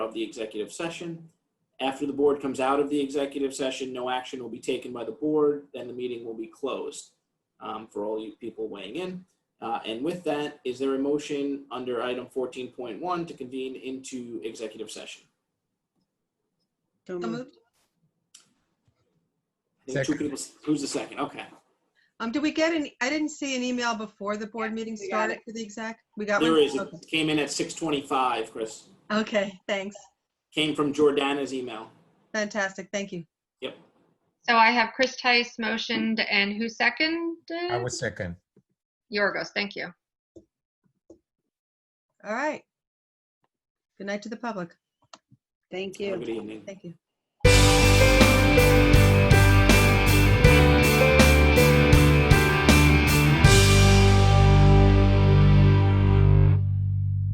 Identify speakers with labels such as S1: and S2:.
S1: of the executive session. After the board comes out of the executive session, no action will be taken by the board, then the meeting will be closed um, for all you people weighing in. Uh, And with that, is there a motion under item 14.1 to convene into executive session?
S2: So
S1: Hmm.
S3: So
S2: moved.
S3: moved.
S1: I think two
S4: Second.
S1: people- Who's the second? Okay.
S3: Um, did we get an, I didn't see an email before the board meeting
S2: we got
S3: started for the exec. We got one?
S1: There is, it
S3: Okay.
S1: came in at 6:25, Chris.
S3: Okay, thanks.
S1: Came from Jordana's email.
S3: Fantastic. Thank you.
S2: So I have Chris Tice motioned and who seconded?
S4: I was second.
S2: Yorgos, thank you.
S3: All right. Good night to the public.
S5: Thank
S1: Have a
S5: you.
S1: Good evening.
S3: Thank you.